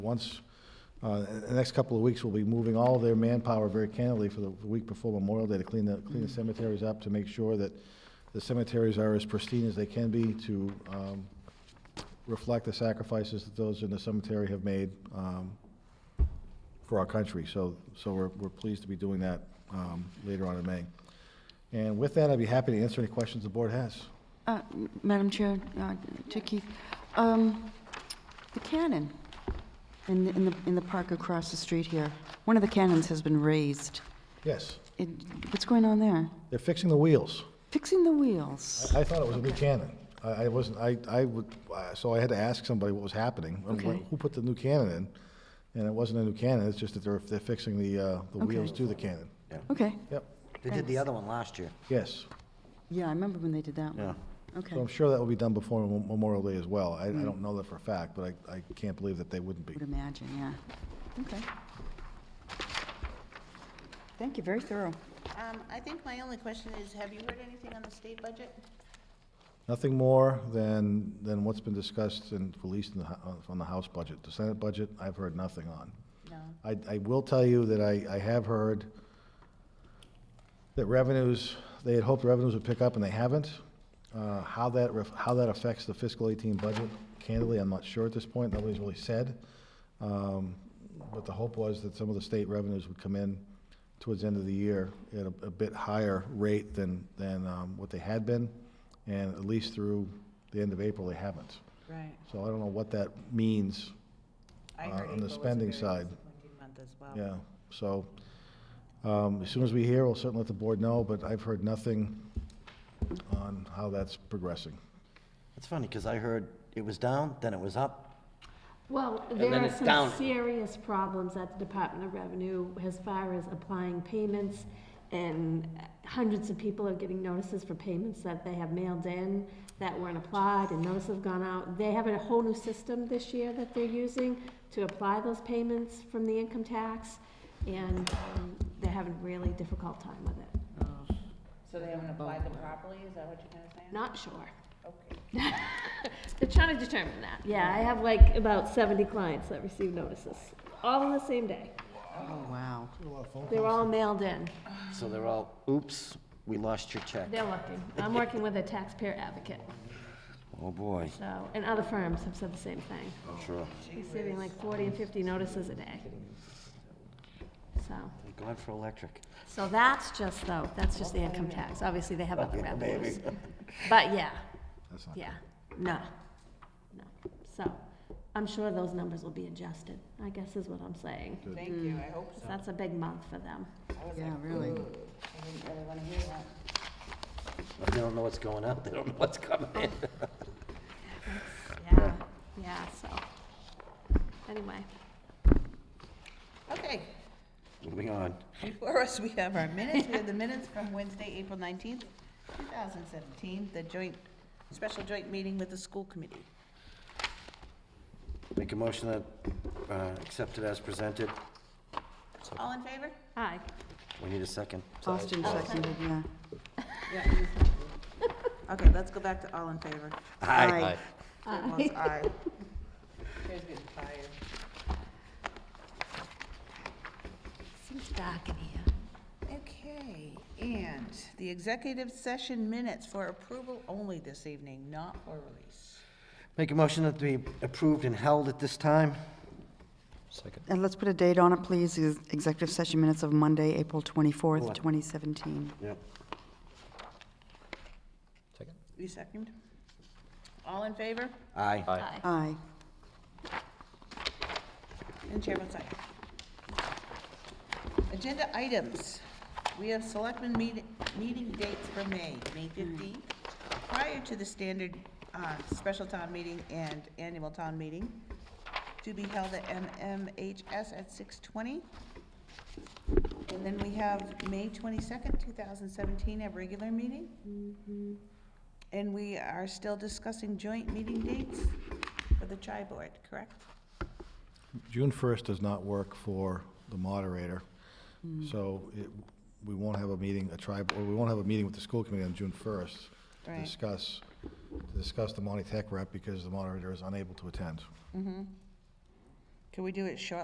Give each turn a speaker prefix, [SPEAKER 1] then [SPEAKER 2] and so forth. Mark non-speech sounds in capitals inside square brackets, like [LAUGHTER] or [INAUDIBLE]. [SPEAKER 1] Once, uh, in the next couple of weeks, we'll be moving all their manpower very candidly for the week before Memorial Day to clean the, clean the cemeteries up, to make sure that the cemeteries are as pristine as they can be, to um, reflect the sacrifices that those in the cemetery have made um, for our country. So, so we're, we're pleased to be doing that um, later on in May. And with that, I'd be happy to answer any questions the board has.
[SPEAKER 2] Uh, m- Madam Chair, uh, to Keith, um, the cannon in, the- in the, in the park across the street here, one of the cannons has been raised.
[SPEAKER 1] Yes,
[SPEAKER 2] It- What's going on there?
[SPEAKER 1] they're fixing the wheels.
[SPEAKER 2] Fixing the wheels.
[SPEAKER 1] I I thought it was a new cannon. I I wasn't, I, I would, I- so I had to ask somebody what was happening. and wh-
[SPEAKER 2] Okay.
[SPEAKER 1] Who put the new cannon in? And it wasn't a new cannon, it's just that they're, they're fixing the, uh, the wheels to the cannon.
[SPEAKER 2] Okay,
[SPEAKER 1] Yep,
[SPEAKER 3] They did the other one last year.
[SPEAKER 1] yes.
[SPEAKER 2] yeah, I remember when they did that one. Okay, Mm-hmm.
[SPEAKER 1] So I'm sure that will be done before Mem- Memorial Day as well. I, I don't know that for a fact, but I, I can't believe that they wouldn't be.
[SPEAKER 2] would imagine, yeah. Okay. Thank you, very thorough.
[SPEAKER 4] Um, I think my only question is, have you heard anything on the state budget?
[SPEAKER 1] Nothing more than, than what's been discussed and released in the, hou- on the House budget. The Senate budget, I've heard nothing on.
[SPEAKER 4] No.
[SPEAKER 1] I, I will tell you that I, I have heard that revenues, they had hoped revenues would pick up and they haven't. Uh, how that, ref- how that affects the fiscal eighteen budget, candidly, I'm not sure at this point, nobody's really said. Um, but the hope was that some of the state revenues would come in towards the end of the year at a, a bit higher rate than, than, um, what they had been. And at least through the end of April, they haven't.
[SPEAKER 5] Right.
[SPEAKER 1] So I don't know what that means
[SPEAKER 5] I heard
[SPEAKER 1] Uh, on the
[SPEAKER 5] April was a
[SPEAKER 1] spending
[SPEAKER 5] very
[SPEAKER 1] side.
[SPEAKER 5] disappointing Month as well.
[SPEAKER 1] Yeah, so, um, as soon as we hear, we'll certainly let the board know, but I've heard nothing on how that's progressing.
[SPEAKER 3] It's funny, because I heard it was down, then it was up.
[SPEAKER 6] Well,
[SPEAKER 3] then
[SPEAKER 6] there are
[SPEAKER 3] it's down.
[SPEAKER 6] some serious problems at the Department of Revenue as far as applying payments, and hundreds of people are getting notices for payments that they have mailed in that weren't applied, and notices have gone out. They have a whole new system this year that they're using to apply those payments from the income tax, and um, they're having a really difficult time with it.
[SPEAKER 4] So they haven't applied
[SPEAKER 5] Oh.
[SPEAKER 4] them properly, is that what you're gonna say?
[SPEAKER 6] Not sure.
[SPEAKER 4] Okay.
[SPEAKER 6] [LAUGHS] They're trying to determine that. Yeah, I have like about seventy clients that received notices, all on the same day.
[SPEAKER 2] Oh, wow.
[SPEAKER 6] They were all mailed in.
[SPEAKER 3] So they're all, oops, we lost your check.
[SPEAKER 6] They're working. I'm working with a taxpayer advocate,
[SPEAKER 3] Oh, boy.
[SPEAKER 6] so, and other firms have said the same thing.
[SPEAKER 3] I'm sure.
[SPEAKER 6] Receiving like forty and fifty notices a day. So,
[SPEAKER 3] Thank God for electric.
[SPEAKER 6] so that's just though, that's just the income tax. Obviously, they have other
[SPEAKER 3] Okay,
[SPEAKER 6] revenues. But yeah,
[SPEAKER 1] That's not-
[SPEAKER 6] yeah, no, no. So, I'm sure those numbers will be adjusted, I guess is what I'm saying.
[SPEAKER 4] Thank you, I hope so.
[SPEAKER 6] That's a big month for them.
[SPEAKER 2] Yeah, really.
[SPEAKER 4] I didn't really wanna hear that.
[SPEAKER 3] They don't know what's going up, they don't know what's coming in.
[SPEAKER 6] Yeah, yeah, so, anyway.
[SPEAKER 4] Okay,
[SPEAKER 3] Moving on.
[SPEAKER 4] before us, we have our minutes, we have the minutes from Wednesday, April nineteenth, two thousand seventeen, the joint, special joint meeting with the school committee.
[SPEAKER 3] Make a motion that, uh, accept it as presented.
[SPEAKER 4] All in favor?
[SPEAKER 6] Hi.
[SPEAKER 3] We need a second.
[SPEAKER 2] Austin seconded, yeah.
[SPEAKER 4] Okay, let's go back to all in favor.
[SPEAKER 2] Aye.
[SPEAKER 4] It was aye. [LAUGHS]
[SPEAKER 6] Seems dark in here.
[SPEAKER 4] Okay, and the executive session minutes for approval only this evening, not for release.
[SPEAKER 3] Make a motion that be approved and held at this time.
[SPEAKER 2] And let's put a date on it, please, is executive session minutes of Monday, April 24th, 2017.
[SPEAKER 3] Yep.
[SPEAKER 4] You second? All in favor?
[SPEAKER 3] Aye.
[SPEAKER 2] Aye.
[SPEAKER 4] And chair votes aye. Agenda items. We have selectmen meet- meeting dates for May, May 15th, prior to the standard uh, special town meeting and annual town meeting, to be held at MMHS at 6:20. And then we have May 22nd, 2017, our regular meeting. Mm-hmm. And we are still discussing joint meeting dates for the tri board, correct?
[SPEAKER 1] June first does not work for the moderator, so it, we won't have a meeting, a tribe, or we won't have a meeting with the school committee on June first to
[SPEAKER 4] Right.
[SPEAKER 1] discuss, to discuss the Monty Tech rep, because the moderator is unable to attend.
[SPEAKER 4] Can we do it shortly